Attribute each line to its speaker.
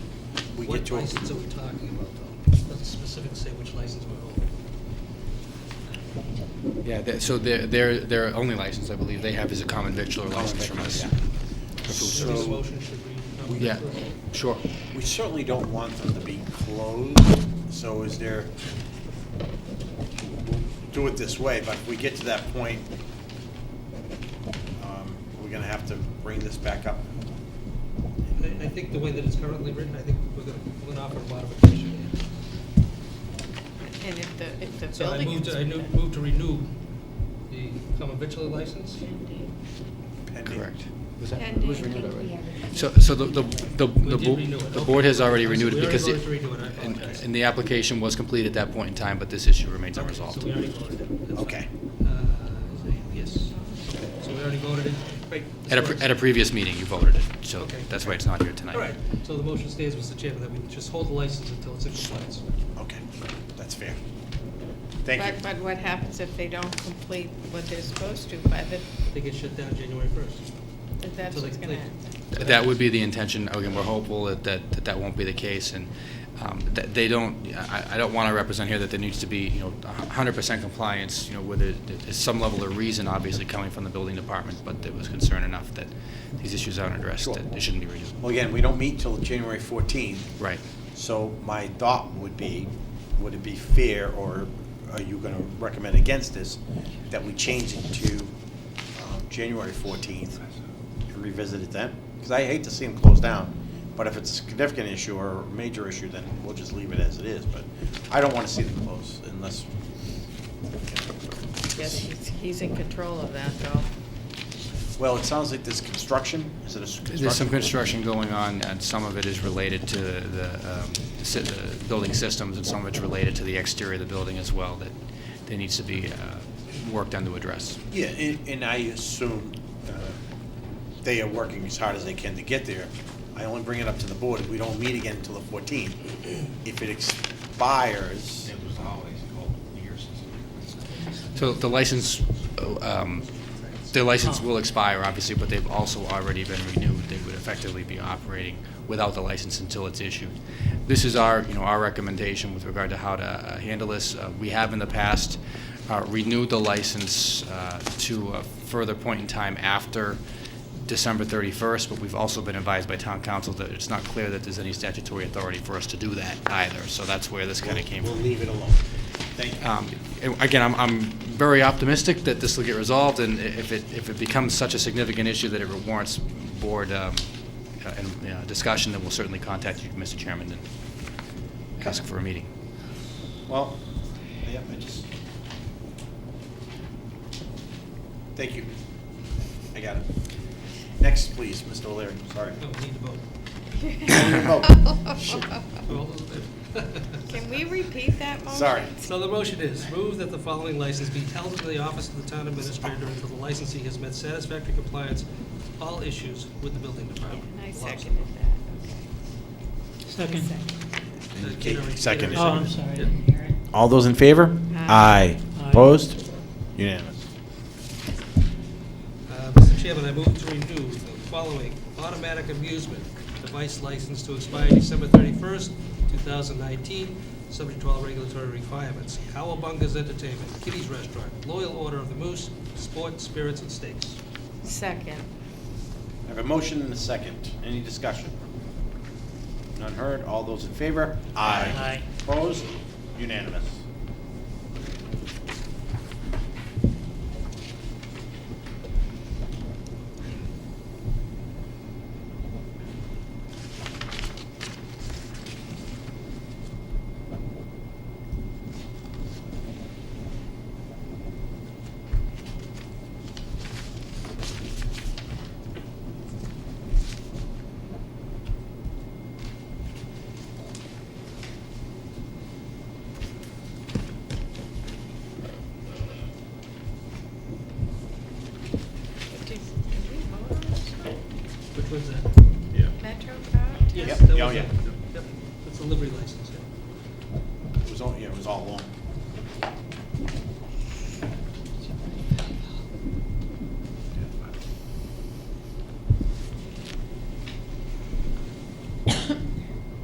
Speaker 1: we
Speaker 2: What
Speaker 1: get to a...
Speaker 2: license are we talking about, though? It Doesn't specifically say which license we're holding.
Speaker 3: Yeah, that- so their, their, their only license, I believe, they have is a common victular license from us. For food
Speaker 2: So
Speaker 3: service.
Speaker 2: this motion should read number
Speaker 3: Yeah,
Speaker 2: first.
Speaker 3: sure.
Speaker 1: We certainly don't want them to be closed, so is there, do it this way, but if we get to that point, um, we're gonna have to bring this back up.
Speaker 2: I, I think the way that it's currently written, I think we're gonna, we're gonna offer a modification.
Speaker 4: And if the, if the
Speaker 2: So I
Speaker 4: building
Speaker 2: moved, I
Speaker 4: inspector.
Speaker 2: nu- moved to renew the common victular license.
Speaker 1: pending.
Speaker 3: Correct.
Speaker 4: Pending.
Speaker 3: So, so the, the, the- the,
Speaker 2: did
Speaker 3: bo-
Speaker 2: renew it,
Speaker 3: the
Speaker 2: okay.
Speaker 3: board has already
Speaker 2: So
Speaker 3: renewed
Speaker 2: we
Speaker 3: it
Speaker 2: already
Speaker 3: because.
Speaker 2: voted
Speaker 3: it-
Speaker 2: to renew it, I
Speaker 3: and-
Speaker 2: apologize.
Speaker 3: And the application was complete at that point in time, but this issue remains
Speaker 2: All right, So
Speaker 3: unresolved.
Speaker 2: we already voted it. That's fine.
Speaker 1: Okay.
Speaker 2: Uh, is it- Yes. Okay, So we already voted it. Right, this
Speaker 3: At a, pre-
Speaker 2: works.
Speaker 3: at a previous meeting, you voted it, so
Speaker 2: Okay.
Speaker 3: that's why it's not here tonight.
Speaker 2: All right, so the motion stays, Mr. Chairman, that we just hold the license until it's in compliance.
Speaker 1: Okay, that's fair. Thank
Speaker 4: But,
Speaker 1: you.
Speaker 4: but what happens if they don't complete what they're supposed to by the,
Speaker 2: They get shut down January first.
Speaker 4: that that's
Speaker 2: So they
Speaker 4: what's gonna
Speaker 2: complete.
Speaker 4: happen?
Speaker 3: Th- That would be the intention, again, we're hopeful that, that, that that won't be the case, and um, that they don't, I, I don't want to represent here that there needs to be, you know, a hundred percent compliance, you know, where there- there's some level of reason, obviously, coming from the building department, but there was concern enough that these issues aren't addressed,
Speaker 1: Sure.
Speaker 3: that they shouldn't be renewed.
Speaker 1: Well, again, we don't meet till January fourteenth,
Speaker 3: Right.
Speaker 1: so my thought would be, would it be fair, or are you gonna recommend against this, that we change it to um, January fourteenth? Revisit it then? Because I hate to see them close down, but if it's a significant issue or a major issue, then we'll just leave it as it is, but I don't wanna see them close unless,
Speaker 4: Yes, he's, he's in control of that though.
Speaker 1: well, it sounds like there's construction, is it a s- construction?
Speaker 3: There's some construction going on, and some of it is related to the, um, si- the building systems, and some of it's related to the exterior of the building as well, that there needs to be, uh, work done to address.
Speaker 1: Yeah, and, and I assume uh, they are working as hard as they can to get there. I only bring it up to the board, we don't meet again until the fourteenth. If it expires,
Speaker 5: It was the holidays, a couple of years since.
Speaker 3: So the license, um, their license will expire, obviously, but they've also already been renewed. They would effectively be operating without the license until it's issued. This is our, you know, our recommendation with regard to how to uh, handle this. Uh, We have in the past uh, renewed the license uh, to a further point in time after December 31st, but we've also been advised by town council that it's not clear that there's any statutory authority for us to do that either. So that's where this kind of came
Speaker 1: we'll
Speaker 3: from.
Speaker 1: leave it alone. Thank you.
Speaker 3: Um, Again, I'm, I'm very optimistic that this will get resolved, and i- if it, if it becomes such a significant issue that it warrants board um, uh, and you know, discussion, then we'll certainly contact you, Mr. Chairman, and ask for a meeting.
Speaker 1: Well, yeah, I just. Thank you. I got it. Next, please, Mr. O'Leary, sorry.
Speaker 2: No, we need to vote.
Speaker 1: Oh, shit.
Speaker 2: All those in favor?
Speaker 4: Can we repeat that motion?
Speaker 1: Sorry.
Speaker 2: So the motion is, move that the following license be held in the office of the town administrator until the licensee has met satisfactory compliance with all issues with the building department.
Speaker 4: And I seconded that, okay.
Speaker 6: Second.
Speaker 2: Uh, Gary-
Speaker 1: Second.
Speaker 2: Gary
Speaker 6: Oh, I'm
Speaker 2: seconded.
Speaker 6: sorry. I
Speaker 2: Yeah.
Speaker 6: didn't hear it.
Speaker 1: All those in favor?
Speaker 4: Aye.
Speaker 6: Aye.
Speaker 1: Opposed? Unanimous.
Speaker 2: Uh, Mr. Chairman, I move to renew the following automatic amusement device license to expire December 31st, 2019, subject to all regulatory requirements. Cowabunga's Entertainment, Kitty's Restaurant, Loyal Order of the Moose, Sport, Spirits, and Steaks.
Speaker 4: Second,
Speaker 1: I have a motion and a second. Any discussion? None heard. All those in favor?
Speaker 6: Aye.
Speaker 1: Opposed? Unanimous.
Speaker 4: Did- did we vote on this one?
Speaker 2: Which one's that?
Speaker 5: Yeah.
Speaker 4: Metro Park?
Speaker 2: Yes,
Speaker 1: Yep. Oh,
Speaker 2: that was
Speaker 1: Yeah,
Speaker 2: it.
Speaker 1: yeah.
Speaker 2: Yep, That's a livery license, yeah.
Speaker 1: It was all, yeah, it was all long.